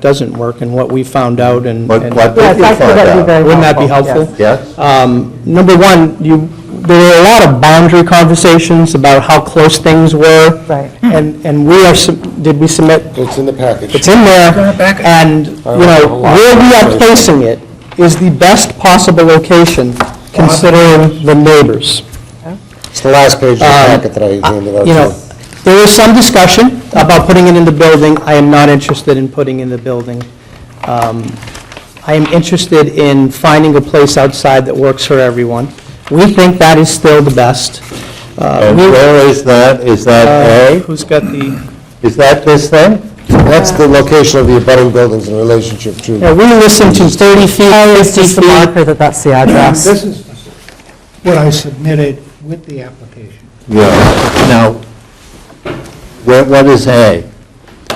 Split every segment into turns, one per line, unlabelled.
doesn't work and what we found out and.
What-
and-
what did
Yes,
you
I think
find
that'd be
out?
very-
Wouldn't that be
helpful,
helpful?
Yes?
Um, Number one, you, there were a lot of boundary conversations about how close things were.
Right.
And, and we are, sub- did we submit,
It's in the
it's
package.
in there, and, you know, where we are placing it is the best possible location considering the neighbors.
It's the last page of the packet that I handed out.
You know,
to
there is some discussion about putting it in the building. I am not interested in putting in the building. Um, I am interested in finding a place outside that works for everyone. We think that is still the best. Uh,
And
we-
where is that? Is
Uh,
that
Who's got the,
A? Is that this thing?
you. That's the location of the abutting buildings in relationship to.
Yeah, we listened to 30 feet,
Oh, it's
50
just the
feet.
marker that that's the address.
This is what I submitted with the application.
Yeah. Now, what, what is A?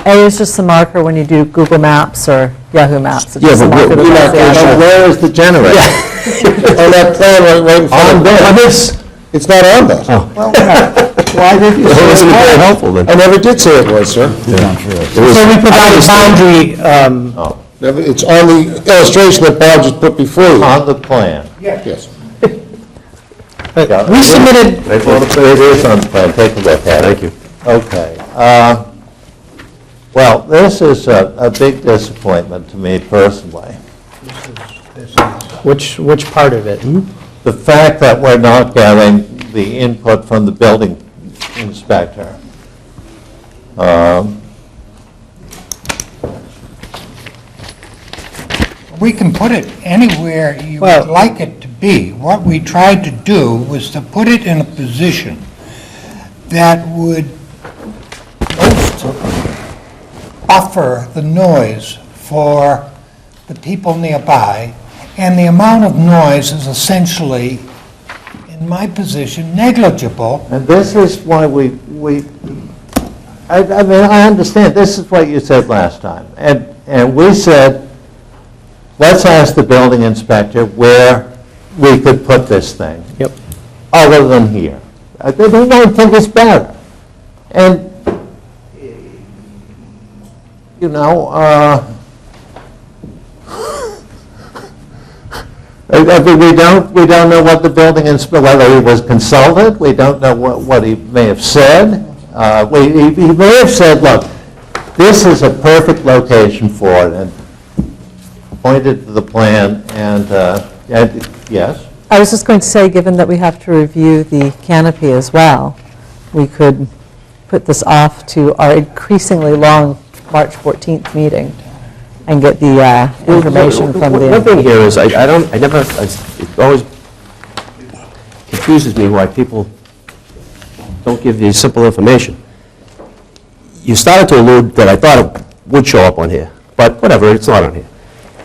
A is just the marker when you do Google Maps or Yahoo Maps. It's
Yeah,
just a
but
marker
we're
that that's
not,
the address.
but where is the generator?
On that plan right, right in front
On
of it.
this?
It's not on that.
Why did you say it was very helpful then?
I never did say it was, sir.
It was-
So we provided boundary, um,
Never, it's on the illustration that Bob just put before you.
On the plan.
Yes.
Yeah.
but uh, we submitted,
It is on the plan, take a look at it. Thank you. Okay. uh, Well, this is a, a big disappointment to me personally.
which, which part of it?
The fact that we're not getting the input from the building inspector. Um,
We can put it anywhere you
Well-
would like it to be. What we tried to do was to put it in a position that would most buffer the noise for the people nearby, and the amount of noise is essentially, in my position, negligible
And this is why we, we, I, I mean, I understand, this is what you said last time. And, and we said, let's ask the building inspector where we could put this thing.
Yep.
other than here. Uh, They they don't think it's better. And, you know, uh, I- I mean, we don't, we don't know what the building inspector, whether he was consulted, we don't know what, what he may have said. Uh, we- He he may have said, look, this is a perfect location for it, and pointed to the plan, and, uh, and, yes?
I was just going to say, given that we have to review the canopy as well, we could put this off to our increasingly long March 14th meeting and get the uh, information from
One thing
the,
here is, I I don't, I never, I s- it always confuses me why people don't give you simple information. You started to allude that I thought it would show up on here, but whatever, it's not on here.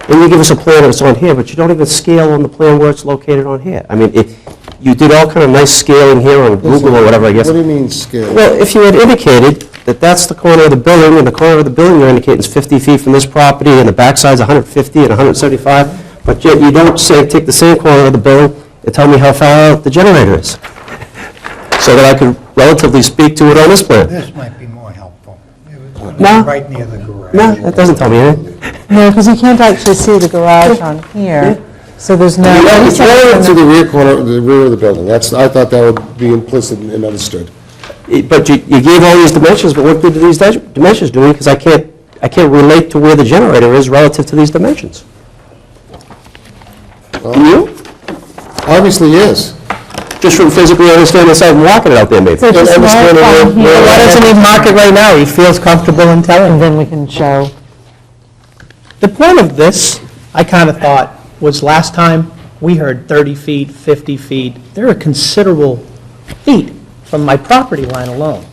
And you give us a plan that's on here, but you don't even scale on the plan where it's located on here. I mean, it- you did all kind of nice scaling here on Google or whatever, I guess.
What do you mean scale?
Well, if you had indicated that that's the corner of the building, and the corner of the building you're indicating is 50 feet from this property, and the backside's 150 and 175, but yet you don't say, take the same corner of the building and tell me how far out the generator is, so that I could relatively speak to it on this plan.
This might be more helpful. It was gonna be
No.
Right near the garage.
No, that doesn't tell me anything.
no, because you can't actually see the garage on here, so there's no.
Yeah, It's relative to the rear corner, the rear of the building. That's, I thought that would be implicit and understood.
It- But you you gave all these dimensions, but what good do these di- dimensions do? Because I can't, I can't relate to where the generator is relative to these dimensions. Do you?
Obviously, yes.
Just from physically understanding the site and walking it out there, maybe.
So just mark
understand
on
where-
here,
Why doesn't he mark it right now? He feels comfortable in telling.
and then we can show.
The point of this, I kind of thought, was last time, we heard 30 feet, 50 feet. There are considerable feet from my property line alone.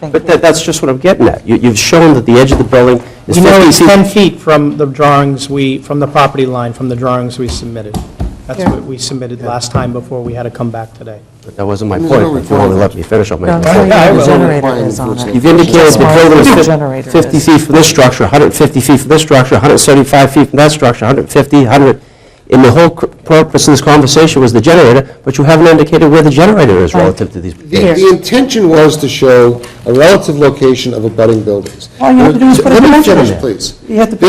But that, that's just what I'm getting at. You, you've shown that the edge of the building is 50 feet.
You know, it's 10 feet from the drawings we, from the property line, from the drawings we submitted. That's
Yeah.
what we submitted last time before we had to come back today.
That wasn't my
There's
point.
no
If you only let me finish up my
No,
point.
so
I
the
will.
generator is on it.
You've indicated the
Smart
building
little
is
generator
fif- 50
is.
feet from this structure, 150 feet from this structure, 175 feet from that structure, 150, 100. And the whole cr- purpose of this conversation was the generator, but you haven't indicated where the generator is relative to these.
The the intention was to show a relative location of abutting buildings.
All you have to do is put a
Let me
dimension in
finish,
there.
please.
You have to
The-